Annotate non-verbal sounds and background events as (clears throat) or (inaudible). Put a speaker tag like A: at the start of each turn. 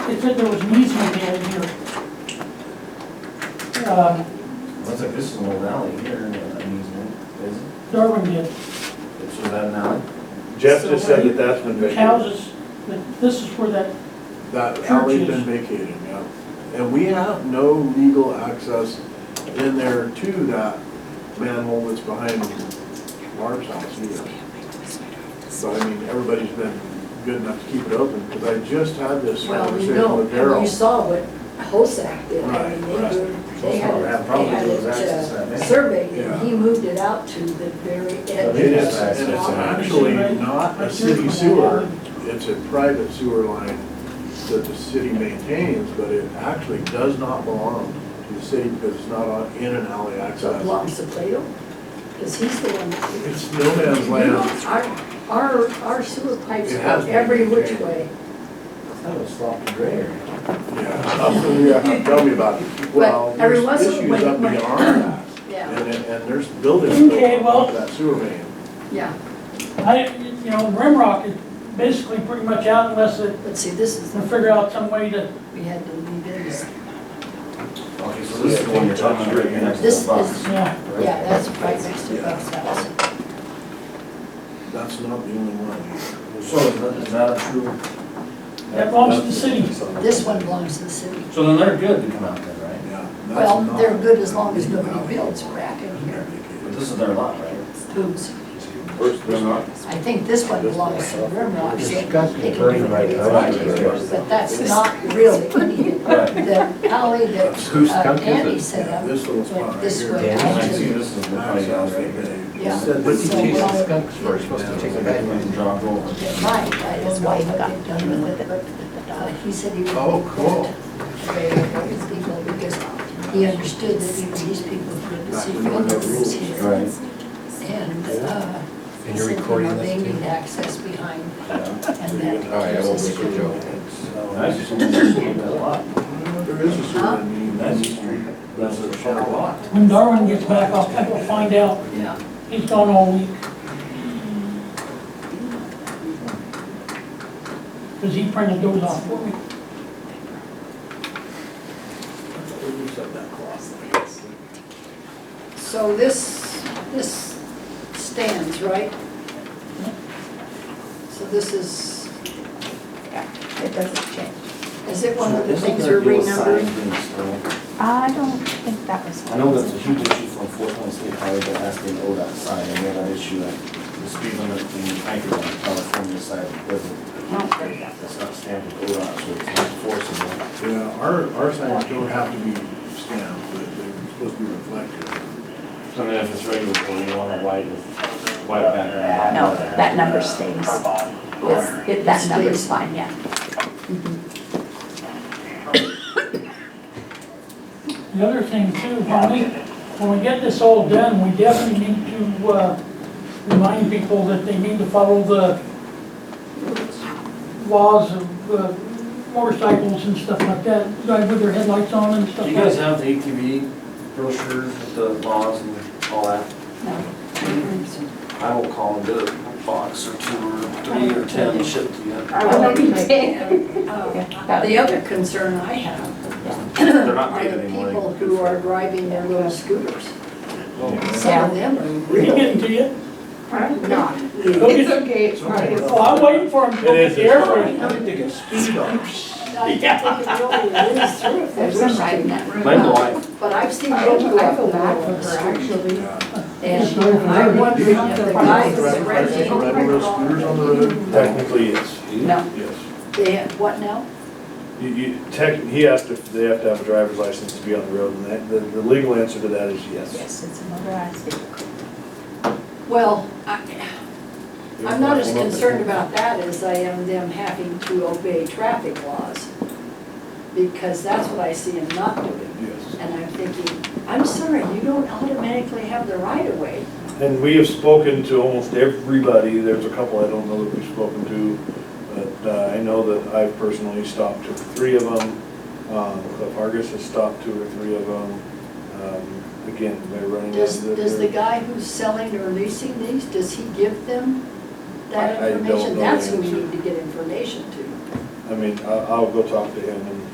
A: said there was an easement in here. Um,
B: Looks like this is an old alley here, an easement, is it?
A: Darwin did,
B: It's was that an alley?
C: Jeff just said that that's been
A: the
C: vacated.
A: houses, that- this is where that,
C: That alley's been vacated, yeah. And we have no legal access in there to that manhole that's behind Barb's house either. So I mean, everybody's been good enough to keep it open, because I just had this
D: Well, we
C: conversation
D: know,
C: with
D: and you
C: Daryl.
D: saw what Hosack did, I
C: Right,
D: mean,
C: right.
D: they were, they
B: Well,
D: had,
B: they have
D: it- they
B: probably
D: had it
B: those access that
D: uh,
B: they-
D: surveyed,
C: Yeah.
D: and he moved it out to the very edge.
C: It is,
D: of the
C: and it's
D: swamp.
C: actually not a city sewer, it's a private sewer line that the city maintains, but it actually does not belong to the city because it's not on, in an alley
D: So it
C: access.
D: belongs to Plato, because he's the one. that-
C: It's no man's land.
D: Our, our, our sewer pipes
C: It
D: go
C: has been
D: every which
C: drained.
D: way.
B: That was sloppy gray.
C: Yeah, tell me about it. Well,
D: every
C: there's
D: once in a
C: issues
D: while-
C: up beyond that.
D: (clears throat) Yeah,
C: And, and and there's buildings built
A: Okay,
C: on
A: well-
C: top of that sewer main.
D: yeah,
A: I, you know, Rimrock is basically pretty much out unless they
D: but see, this is,
A: they figure out some way to,
D: we had to leave in this.
B: Okay, so this is the one you're talking about, right next to
D: This
B: the
D: is-
B: box.
A: yeah,
B: right?
D: Yeah, that's right next to Bob's house.
C: That's not the only one.
B: So is that, is that a true?
A: That belongs to the city.
D: This one belongs to the city.
B: So then they're good to come out then, right?
C: Yeah. that's
D: Well,
C: not-
D: they're good as long as nobody builds crap in here.
B: But this is their lot, right?
D: Who's,
C: First, they're not.
D: I think this one belongs to Rimrock, so they can do
E: burning right now.
D: it here. But that's not really any, the alley that
E: Whose
D: uh,
E: skunk is
D: Andy
E: it?
D: set
C: Yeah,
D: up.
C: this little spot right
D: This
C: here.
D: way.
B: And I see this is the
C: Nice
B: probably
C: house
B: house
C: right
B: right there.
C: there.
D: Yeah.
C: Said this
E: What's he
D: So,
E: chasing
D: well,
E: skunks for? He's supposed to chase a guy.
B: And drop over.
D: It might, I don't know what they've done with it, but uh, he said he. would-
C: Oh, cool.
D: They were his people because he understood that even these people could
C: That's
D: see
C: when there were no
D: windows
C: rules.
D: here.
B: Right.
D: And, uh.
E: And you're
D: he said, you
E: recording
D: know,
E: this
D: They
E: too?
D: need access behind,
B: Yeah.
D: and that.
E: All right, I will
D: gives us
E: wait for
D: a-
E: Joe.
B: That's just one that's in that lot.
C: There is a sewer main.
B: That's a street. That's a
C: Our
B: shadow
C: lot.
B: lot.
A: when Darwin gets back, I'll, I'll find out,
D: Yeah,
A: he's gone all week. Cause he printed those off for me.
D: so this, this stands, right? So this is,
F: Yeah, it doesn't change.
D: is it one of the things you're renumbered?
F: I don't think that was.
B: I know that's a huge issue from Four Point State Highway, but that's been ODOT side, and we had an issue at the speed limit in Anchorage, on the California side, it doesn't,
F: Not very good.
B: it's not stamped with ODOT, so it's not enforceable.
C: Yeah, our, our signs don't have to be stamped, but they're supposed to be reflective.
G: So then if it's regulatory, you want a white, white background.
F: No, that number stays. Yes, it- That number's fine, yeah.
A: The other thing too, when we, when we get this all done, we definitely need to, uh, remind people that they need to follow the laws of uh, motorcycles and stuff like that, drive with their headlights on and stuff
B: Do
A: like
B: you guys
A: that.
B: have the ATV brochures with the laws and all that? I will call and get a box or two or three or ten and ship to you.
D: I
F: won't be
D: Uh, The other concern I have
B: They're not
D: are
B: made
D: the
B: anymore.
D: people who are driving their little scooters.
B: Oh,
D: Some of them are
F: (laughs)
A: Are you
D: really
A: getting to you?
D: (laughs) not.
A: Go get-
F: okay, it's
A: Well, I'm waiting for him to go get the airbrake.
D: I think it really is true if
F: There's
D: they're
F: some
D: riding.
F: riding that room.
B: My wife,
D: But I've seen
F: I
D: them go up
F: feel
D: and
F: bad
D: down
F: for
D: the
F: her,
D: street.
F: actually.
C: Yeah.
D: And I'm wondering if the guys
C: Red- red-
D: renting,
C: red- red scooters on the road?
H: Technically, it's,
F: No,
H: yes.
D: they have, what now?
H: You, you, tech, he asked if they have to have a driver's license to be on the road, and that, the, the legal answer to that is yes.
F: yes, it's a motorized vehicle.
D: Well, I, I'm not as concerned about that as I am them having to obey traffic laws. Because that's what I see them not doing.
C: Yes.
D: And I'm thinking, I'm sorry, you don't automatically have the right of way.
H: And we have spoken to almost everybody, there's a couple I don't know that we've spoken to, but uh, I know that I've personally stopped two or three of them. Um, Cliff Hargis has stopped two or three of them. Um, Again, they're running.
D: Does,
H: into
D: does the
H: their-
D: guy who's selling or leasing these, does he give them
H: I- I
D: that
H: don't
D: information?
H: know
D: That's
H: the
D: who we
H: answer.
D: need to get information to.
H: I
C: I mean, I, I'll go talk to him and